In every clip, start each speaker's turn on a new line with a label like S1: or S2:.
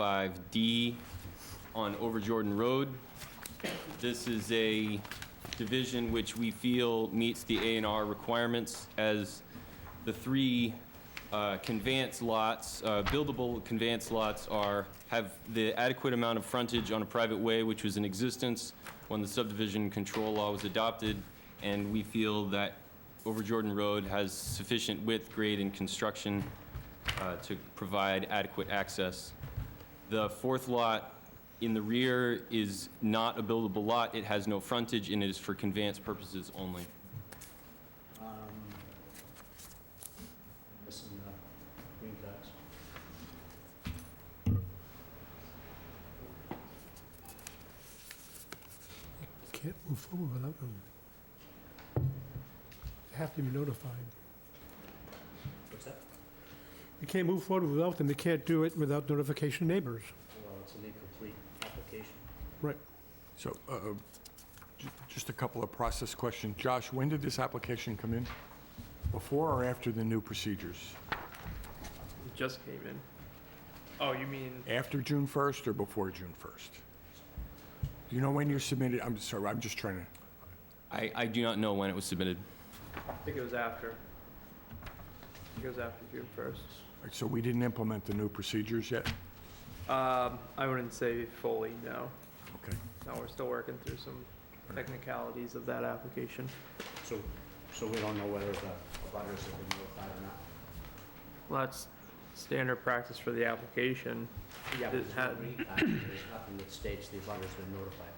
S1: 135D on Over Jordan Road. This is a division which we feel meets the A and R requirements as the three uh, conveyance lots, uh, buildable conveyance lots are, have the adequate amount of frontage on a private way, which was in existence when the subdivision control law was adopted, and we feel that Over Jordan Road has sufficient width, grade, and construction uh, to provide adequate access. The fourth lot in the rear is not a buildable lot. It has no frontage, and it is for conveyance purposes only.
S2: Um, Missing the uh, green dots.
S3: Can't move forward without them. They have to be notified.
S2: What's that?
S3: You can't move forward without them, they can't do it without notification of neighbors.
S2: Well, it's an incomplete application.
S4: So, uh, ju- just a couple of process questions. Josh, when did this application come in? Before or after the new procedures?
S5: It just came in. Oh, you mean,
S4: After June 1st or before June 1st? Do you know when you submitted? I'm sorry, I'm just trying to,
S1: I, I do not know when it was submitted.
S5: I think it was after. It was after June first.
S4: so we didn't implement the new procedures yet?
S5: Um, I wouldn't say fully, no.
S4: Okay.
S5: No, we're still working through some technicalities of that application.
S2: So, so we don't know whether the abutters have been notified or not.
S5: Well, that's standard practice for the application.
S2: Yeah, but
S5: It
S2: there's no
S5: had-
S2: green dot. There's nothing that states the abutters been notified.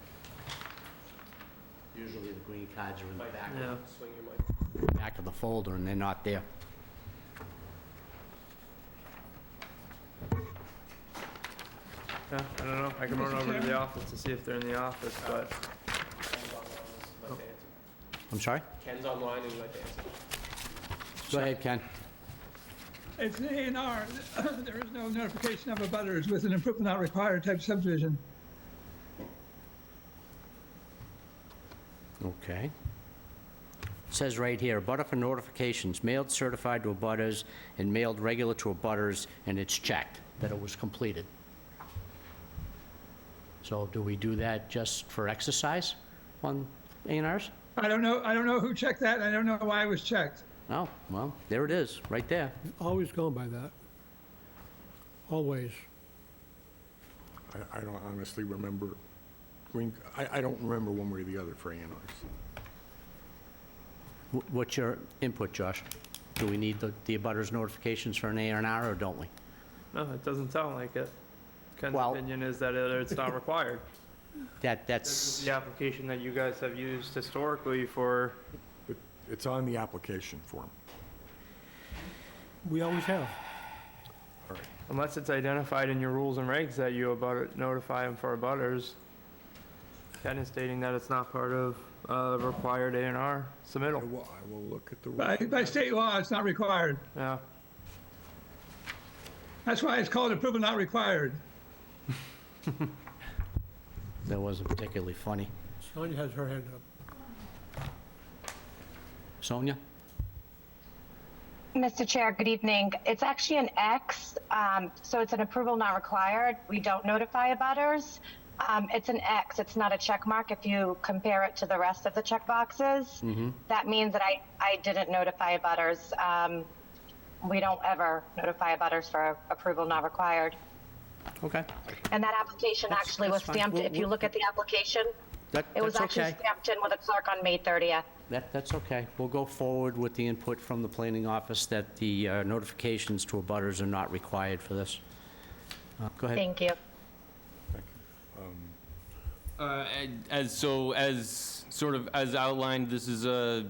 S2: Usually the green cards are in the back,
S5: Yeah.
S2: back of the folder, and they're not there.
S5: Yeah, I don't know. I can run over to the office to see if they're in the office, but
S2: I'm sorry?
S5: Ken's online and might answer.
S2: Go ahead, Ken.
S6: It's an A and R. There is no notification of abutters with an improvement not required type subdivision.
S2: Okay. Says right here, abutter for notifications mailed certified to abutters and mailed regular to abutters, and it's checked that it was completed. So do we do that just for exercise on A and Rs?
S6: I don't know, I don't know who checked that, and I don't know why it was checked.
S2: No, well, there it is, right there.
S3: Always gone by that. Always.
S4: I, I don't honestly remember, green, I, I don't remember one way or the other for A and Rs.
S2: Wh- What's your input, Josh? Do we need the, the abutters notifications for an A and R, or don't we?
S5: No, it doesn't sound like it. Ken's
S2: Well-
S5: opinion is that it- it's not required.
S2: That,
S5: This
S2: that's,
S5: is the application that you guys have used historically for
S4: But It's on the application form.
S3: We always have.
S5: Unless it's identified in your rules and regs that you about, notify them for abutters. Ken is stating that it's not part of, uh, required A and R
S4: I
S5: submittal,
S4: will, I will look at the.
S6: By, by state law, it's not required.
S5: yeah.
S6: That's why it's called improvement not required.
S2: that wasn't particularly funny.
S3: Sonia has her hand up.
S2: Sonia?
S7: Mr. Chair, good evening. It's actually an X, um, so it's an approval not required. We don't notify abutters. Um, it's an X, it's not a check mark. If you compare it to the rest of the check boxes, that means that I, I didn't notify abutters. Um, we don't ever notify abutters for approval not required.
S2: Okay,
S7: And that application
S2: That's-
S7: actually was
S2: that's fine.
S7: stamped,
S2: We'll-
S7: if you
S2: we'll-
S7: look at the application,
S2: that,
S7: it was
S2: that's
S7: actually
S2: okay.
S7: stamped in with a clerk on May 30th.
S2: That, that's okay. We'll go forward with the input from the planning office that the uh, notifications to abutters are not required for this. Uh, Go ahead.
S7: Thank you.
S1: Uh, and As, so as, sort of, as outlined, this is a,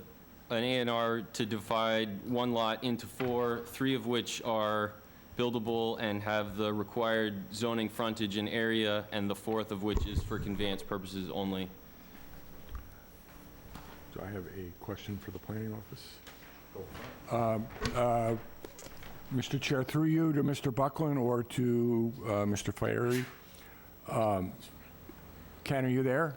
S1: an A and R to divide one lot into four, three of which are buildable and have the required zoning frontage and area, and the fourth of which is for conveyance purposes only.
S4: Do I have a question for the planning office? Um, uh, Mr. Chair, through you to Mr. Buckland or to uh, Mr. Flaherty. Um, Ken, are you there?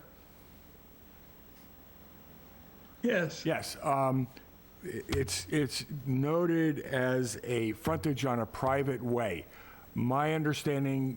S6: Yes.
S4: Yes. um, i- It's, it's noted as a frontage on a private way. My understanding